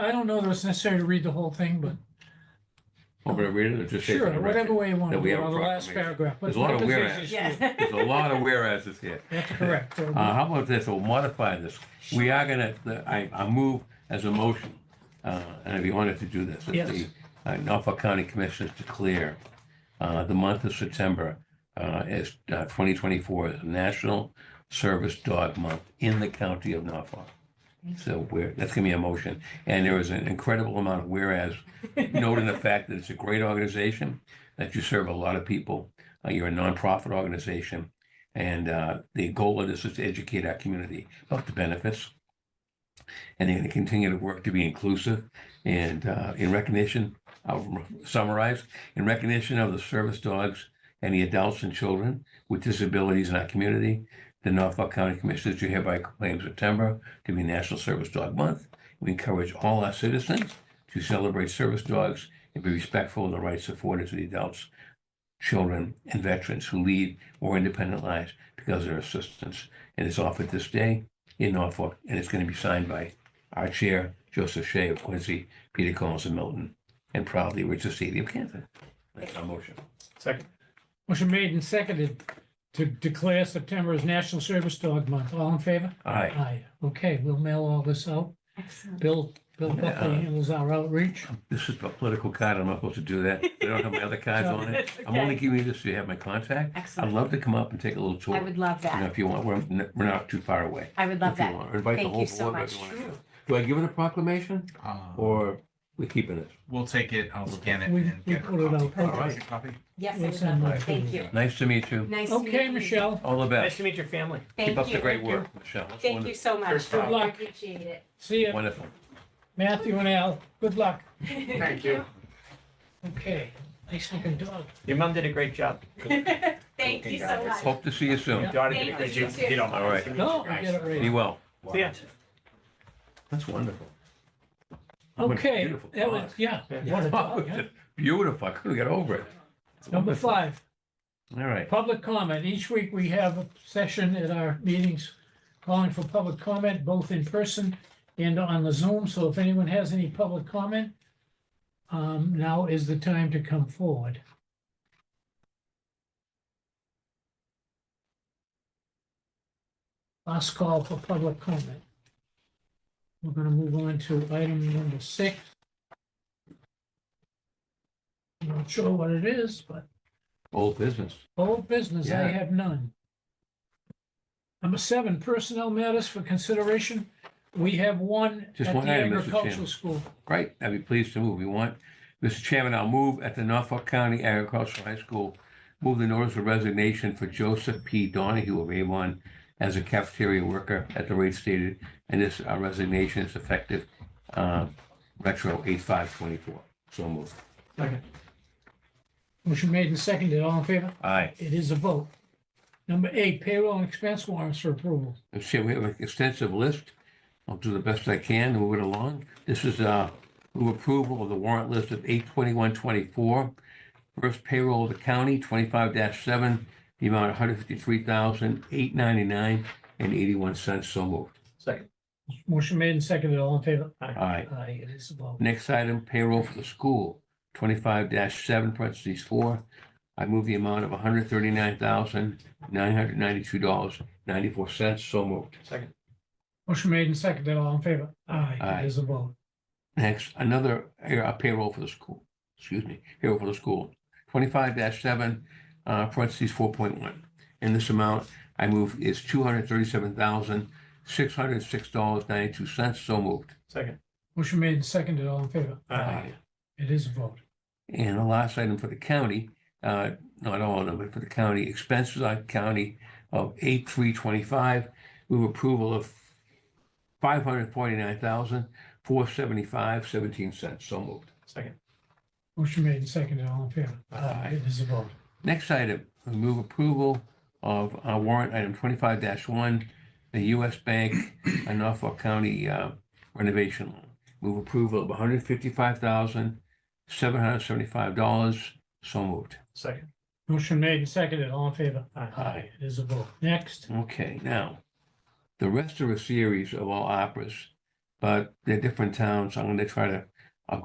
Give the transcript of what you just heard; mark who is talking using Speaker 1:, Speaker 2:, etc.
Speaker 1: I don't know that it's necessary to read the whole thing, but
Speaker 2: Over to read it or just say for
Speaker 1: sure,
Speaker 2: the
Speaker 1: whatever
Speaker 2: record?
Speaker 1: way you want to
Speaker 2: that we
Speaker 1: do it,
Speaker 2: have a
Speaker 1: or the last
Speaker 2: proclamation.
Speaker 1: paragraph. but
Speaker 2: There's a lot of
Speaker 1: purpose is
Speaker 2: whereas.
Speaker 1: is you.
Speaker 3: Yes.
Speaker 2: There's a lot of whereases here.
Speaker 1: That's correct. So
Speaker 2: Uh, how about this, we'll modify this. We are gonna, the- I, I move as a motion, uh, and I'd be honored to do this. that
Speaker 1: Yes.
Speaker 2: the, uh, Norfolk County Commissioners declare, uh, the month of September, uh, as, uh, twenty twenty-four is National Service Dog Month in the county of Norfolk. So we're, that's gonna be a motion, and there is an incredible amount of whereas, noting the fact that it's a great organization, that you serve a lot of people, uh, you're a nonprofit organization, and uh, the goal of this is to educate our community about the benefits. And they're going to continue to work to be inclusive and uh, in recognition, I'll summarize, in recognition of the service dogs and the adults and children with disabilities in our community, the Norfolk County Commissioners do hereby proclaim September to be National Service Dog Month. We encourage all our citizens to celebrate service dogs and be respectful of the rights afforded to the adults, children, and veterans who lead or independent lives because of their assistance. And it's offered this day in Norfolk, and it's going to be signed by our chair, Joseph Shea of Quincy, Peter Collins of Milton, and proudly Richard Seeley of Canton. That's our motion.
Speaker 4: Second.
Speaker 1: Motion made and seconded to declare September as National Service Dog Month. All in favor?
Speaker 2: Aye.
Speaker 1: Aye. Okay, we'll mail all this out.
Speaker 3: Excellent.
Speaker 1: Bill, Bill
Speaker 2: Yeah.
Speaker 1: Buckley handles our outreach.
Speaker 2: This is a political card. I'm not supposed to do that. I don't have my other cards on it. I'm only giving you this so you have my contact. I'd
Speaker 3: Excellent.
Speaker 2: love to come up and take a little tour.
Speaker 3: I would love
Speaker 2: You know,
Speaker 3: that.
Speaker 2: if you want, we're, we're not too far away.
Speaker 3: I would love
Speaker 2: If you
Speaker 3: that.
Speaker 2: want, or Invite the
Speaker 3: Thank
Speaker 2: whole
Speaker 3: you so
Speaker 2: board. if
Speaker 3: much.
Speaker 2: you want to come. Do I give it a proclamation
Speaker 4: Uh,
Speaker 2: or we keeping it?
Speaker 4: We'll take it, I'll scan it
Speaker 1: We-
Speaker 4: and
Speaker 1: we
Speaker 4: get Oh, a
Speaker 1: pull it
Speaker 4: copy.
Speaker 1: out. Okay.
Speaker 4: Alright, copy.
Speaker 3: Yes, I
Speaker 1: We'll
Speaker 3: would
Speaker 1: send
Speaker 3: love
Speaker 1: that
Speaker 3: that.
Speaker 1: to
Speaker 3: Thank
Speaker 1: you.
Speaker 3: you.
Speaker 2: Nice to meet you.
Speaker 3: Nice to meet you.
Speaker 1: Okay, Michelle,
Speaker 2: All the
Speaker 5: Nice
Speaker 2: best.
Speaker 5: to meet your family.
Speaker 2: Keep
Speaker 3: Thank
Speaker 2: up the
Speaker 3: you.
Speaker 2: great work, Michelle. It's
Speaker 3: Thank you so much.
Speaker 4: Good
Speaker 1: luck.
Speaker 3: Appreciate it.
Speaker 1: see ya.
Speaker 2: Wonderful.
Speaker 1: Matthew and Al, good luck.
Speaker 3: Thank
Speaker 5: you.
Speaker 1: Okay, nice looking dog.
Speaker 5: Your mom did a great job.
Speaker 3: Thank you so much.
Speaker 2: Hope to see you soon.
Speaker 5: Your daughter did
Speaker 3: Thank
Speaker 5: a great
Speaker 3: you.
Speaker 5: job. You don't mind.
Speaker 2: All right.
Speaker 1: No, I get it
Speaker 2: Be
Speaker 1: right.
Speaker 2: well.
Speaker 5: See ya.
Speaker 2: That's wonderful.
Speaker 1: Okay,
Speaker 2: Beautiful
Speaker 1: that was,
Speaker 2: dog.
Speaker 1: yeah. what a dog, yeah.
Speaker 2: Beautiful. I couldn't get over it. It's
Speaker 1: Number
Speaker 2: wonderful.
Speaker 1: five.
Speaker 2: All right.
Speaker 1: Public comment. Each week we have a session at our meetings calling for public comment, both in person and on the Zoom. So if anyone has any public comment, um, now is the time to come forward. Last call for public comment. We're gonna move on to item number six. I'm not sure what it is, but
Speaker 2: Old business.
Speaker 1: Old business, I
Speaker 2: Yeah.
Speaker 1: have none. Number seven, personnel matters for consideration. We have one
Speaker 2: Just
Speaker 1: at
Speaker 2: one
Speaker 1: the
Speaker 2: item, Mr.
Speaker 1: agricultural
Speaker 2: Chairman.
Speaker 1: school.
Speaker 2: Great. I'd be pleased to move. You want? Mr. Chairman, I'll move at the Norfolk County Agricultural High School, move the notice of resignation for Joseph P. Donahue of Avon as a cafeteria worker at the rate stated, and this uh, resignation is effective um, retro 8524. So moved.
Speaker 1: Motion made and seconded, all in favor?
Speaker 2: Aye.
Speaker 1: It is a vote. Number eight, payroll and expense warrants for approval.
Speaker 2: Let's see, we have an extensive list. I'll do the best I can to move it along. This is uh, move approval of the warrant list of eight twenty-one twenty-four. First payroll of the county, twenty-five seven, the amount one hundred fifty-three thousand eight ninety-nine and eighty-one cents. So moved.
Speaker 5: Second.
Speaker 1: Motion made and seconded, all in favor?
Speaker 2: Aye.
Speaker 1: Aye, it is a vote.
Speaker 2: Next item, payroll for the school, twenty-five seven, parentheses four. I move the amount of one hundred thirty-nine thousand nine hundred ninety-two dollars ninety-four cents. So moved.
Speaker 5: Second.
Speaker 1: Motion made and seconded, all in favor? Aye,
Speaker 2: Aye.
Speaker 1: it is a vote.
Speaker 2: Next, another air- a payroll for the school, excuse me, payroll for the school, twenty-five seven, uh, parentheses four point one. In this amount, I move is two hundred thirty-seven thousand, six hundred six dollars ninety-two cents, so moved.
Speaker 5: Second.
Speaker 1: Motion made and seconded, all in favor? It is a vote.
Speaker 2: And the last item for the county, uh, not all of them, but for the county, expenses on county of eight three twenty-five, move approval of five hundred forty-nine thousand, four seventy-five, seventeen cents, so moved.
Speaker 5: Second.
Speaker 1: Motion made and seconded, all in favor?
Speaker 2: Aye.
Speaker 1: It is a vote.
Speaker 2: Next item, we move approval of uh, warrant item twenty-five one, the U.S. Bank and Norfolk County uh, renovation loan. Move approval of one hundred fifty-five thousand, seven hundred seventy-five dollars. So moved.
Speaker 5: Second.
Speaker 1: Motion made and seconded, all in favor?
Speaker 5: Aye.
Speaker 2: Aye.
Speaker 1: It is a vote. Next,
Speaker 2: Okay, now, the rest of a series of all operas but they're different towns. I'm gonna try to